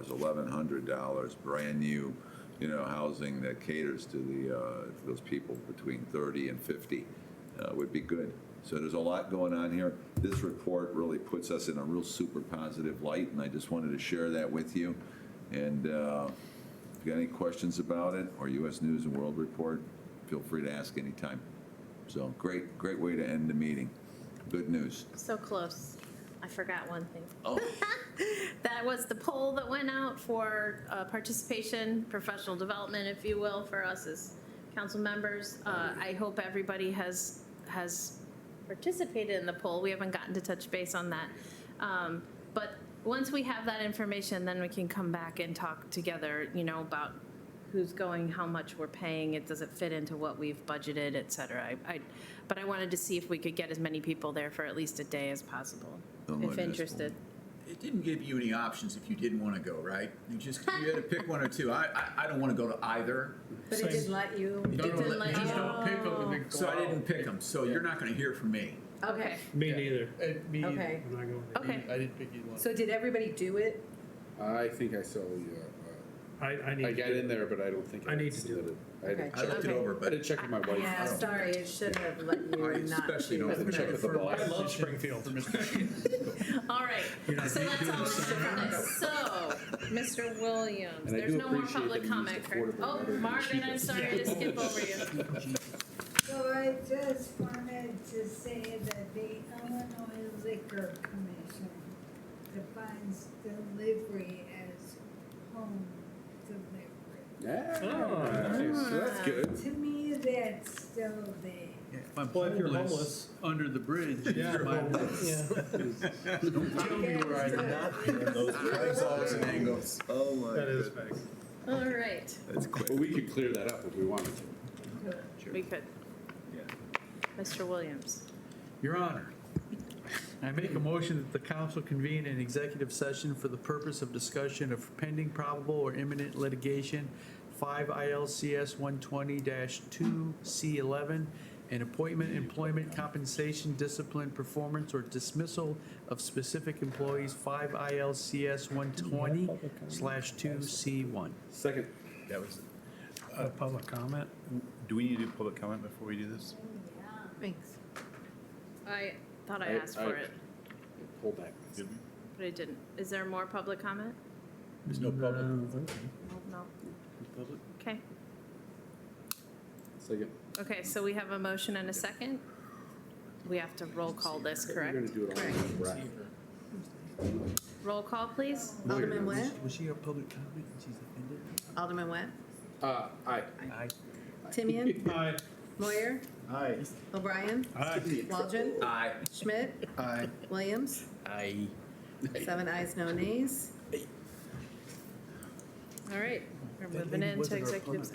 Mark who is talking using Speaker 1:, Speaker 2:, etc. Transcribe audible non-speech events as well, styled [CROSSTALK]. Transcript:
Speaker 1: There's eleven hundred dollars, brand-new, you know, housing that caters to the, uh, those people between thirty and fifty uh, would be good. So there's a lot going on here. This report really puts us in a real super positive light, and I just wanted to share that with you. And uh, if you got any questions about it, or U.S. News and World Report, feel free to ask anytime. So, great, great way to end the meeting. Good news.
Speaker 2: So close. I forgot one thing.
Speaker 1: Oh,
Speaker 2: That was the poll that went out for uh, participation, professional development, if you will, for us as council members. Uh, I hope everybody has, has participated in the poll. We haven't gotten to touch base on that. Um, But once we have that information, then we can come back and talk together, you know, about who's going, how much we're paying, it doesn't fit into what we've budgeted, et cetera. I, I- but I wanted to see if we could get as many people there for at least a day as possible,
Speaker 1: Oh, my
Speaker 2: if
Speaker 1: goodness.
Speaker 2: interested.
Speaker 3: It didn't give you any options if you didn't want to go, right? You just, you had to pick one or two. I, I, I don't want to go to either.
Speaker 4: But it didn't let you.
Speaker 3: It
Speaker 5: Don't
Speaker 3: didn't let
Speaker 5: let- you
Speaker 3: me
Speaker 5: Just
Speaker 3: go.
Speaker 5: don't pick them and then go
Speaker 3: So I
Speaker 5: out.
Speaker 3: didn't pick them, so you're not going to hear from me.
Speaker 2: Okay.
Speaker 5: Me
Speaker 6: Yeah.
Speaker 5: neither.
Speaker 6: Uh, Me either.
Speaker 4: Okay.
Speaker 6: I'm not going there.
Speaker 2: Okay.
Speaker 6: I didn't pick either one.
Speaker 4: So did everybody do it?
Speaker 7: I think I saw the,
Speaker 6: I, I
Speaker 7: uh, uh,
Speaker 6: need.
Speaker 7: I
Speaker 6: to
Speaker 7: got
Speaker 6: do-
Speaker 7: in there, but I don't think
Speaker 6: I
Speaker 7: I
Speaker 6: need to do
Speaker 7: submitted. I had to
Speaker 4: Okay.
Speaker 3: I looked it
Speaker 2: Okay.
Speaker 3: over,
Speaker 7: I had to
Speaker 3: but
Speaker 7: check with my wife.
Speaker 4: Yeah,
Speaker 3: don't-
Speaker 4: sorry, it should have let you
Speaker 3: I
Speaker 4: and not.
Speaker 3: especially
Speaker 4: do
Speaker 3: don't
Speaker 4: it.
Speaker 7: Let me check with the boss.
Speaker 6: I love Springfield.
Speaker 2: All right, so that's all we're doing this. So, Mr. Williams,
Speaker 7: And I
Speaker 2: there's
Speaker 7: do
Speaker 2: no more
Speaker 7: appreciate
Speaker 2: public
Speaker 7: that you used
Speaker 2: comment.
Speaker 7: affordable
Speaker 2: Oh,
Speaker 7: rather than
Speaker 2: Margaret, I'm sorry to skip over you.
Speaker 8: So I just wanted to say that the Illinois Liquor Commission defines delivery as home delivery.
Speaker 7: Yeah,
Speaker 6: Oh,
Speaker 7: nice. So that's good.
Speaker 8: To me, that's still there.
Speaker 3: if I'm
Speaker 5: Well, if you're
Speaker 3: homeless,
Speaker 5: homeless under the bridge,
Speaker 6: Yeah. [LAUGHS]
Speaker 5: you might- [LAUGHS]
Speaker 6: Yeah.
Speaker 3: there's always an angle.
Speaker 1: oh my
Speaker 6: That is
Speaker 1: goodness.
Speaker 6: facts.
Speaker 2: All right,
Speaker 1: That's quick.
Speaker 7: But we could clear that up if we wanted to.
Speaker 2: we could. Mr. Williams.
Speaker 5: Your Honor, I make a motion that the council convene an executive session for the purpose of discussion of pending probable or imminent litigation, 5 ILCS 120-2C11, and appointment, employment, compensation, discipline, performance, or dismissal of specific employees, 5 ILCS 120/2C1.
Speaker 7: Second,
Speaker 9: That was,
Speaker 5: Uh, Public comment?
Speaker 9: do we need to do public comment before we do this?
Speaker 2: Thanks. I thought I
Speaker 7: I-
Speaker 2: asked for
Speaker 7: I-
Speaker 2: it,
Speaker 7: hold back.
Speaker 9: Did we?
Speaker 2: but I didn't. Is there more public comment?
Speaker 3: There's no public.
Speaker 2: No.
Speaker 7: Public?
Speaker 2: Okay,
Speaker 7: Second.
Speaker 2: okay, so we have a motion and a second. We have to roll call this,
Speaker 7: We're gonna
Speaker 2: correct?
Speaker 7: do it all in one breath.
Speaker 2: Roll call, please.
Speaker 4: Alderman Went,
Speaker 5: Was she a public comment? and She's offended?
Speaker 4: Alderman Went,
Speaker 7: Uh, aye.
Speaker 5: Aye.
Speaker 3: [LAUGHS]
Speaker 4: Timian,
Speaker 6: Aye.
Speaker 4: Moyer,
Speaker 9: Aye.
Speaker 4: O'Brien, Waldron,
Speaker 3: Aye.
Speaker 4: Schmidt,
Speaker 5: Aye.
Speaker 3: [LAUGHS]
Speaker 4: Williams,
Speaker 3: Aye.
Speaker 4: seven ayes, no nays.
Speaker 2: All right, we're
Speaker 5: That
Speaker 2: moving
Speaker 5: lady
Speaker 2: into
Speaker 5: wasn't our
Speaker 2: executive
Speaker 5: opponent.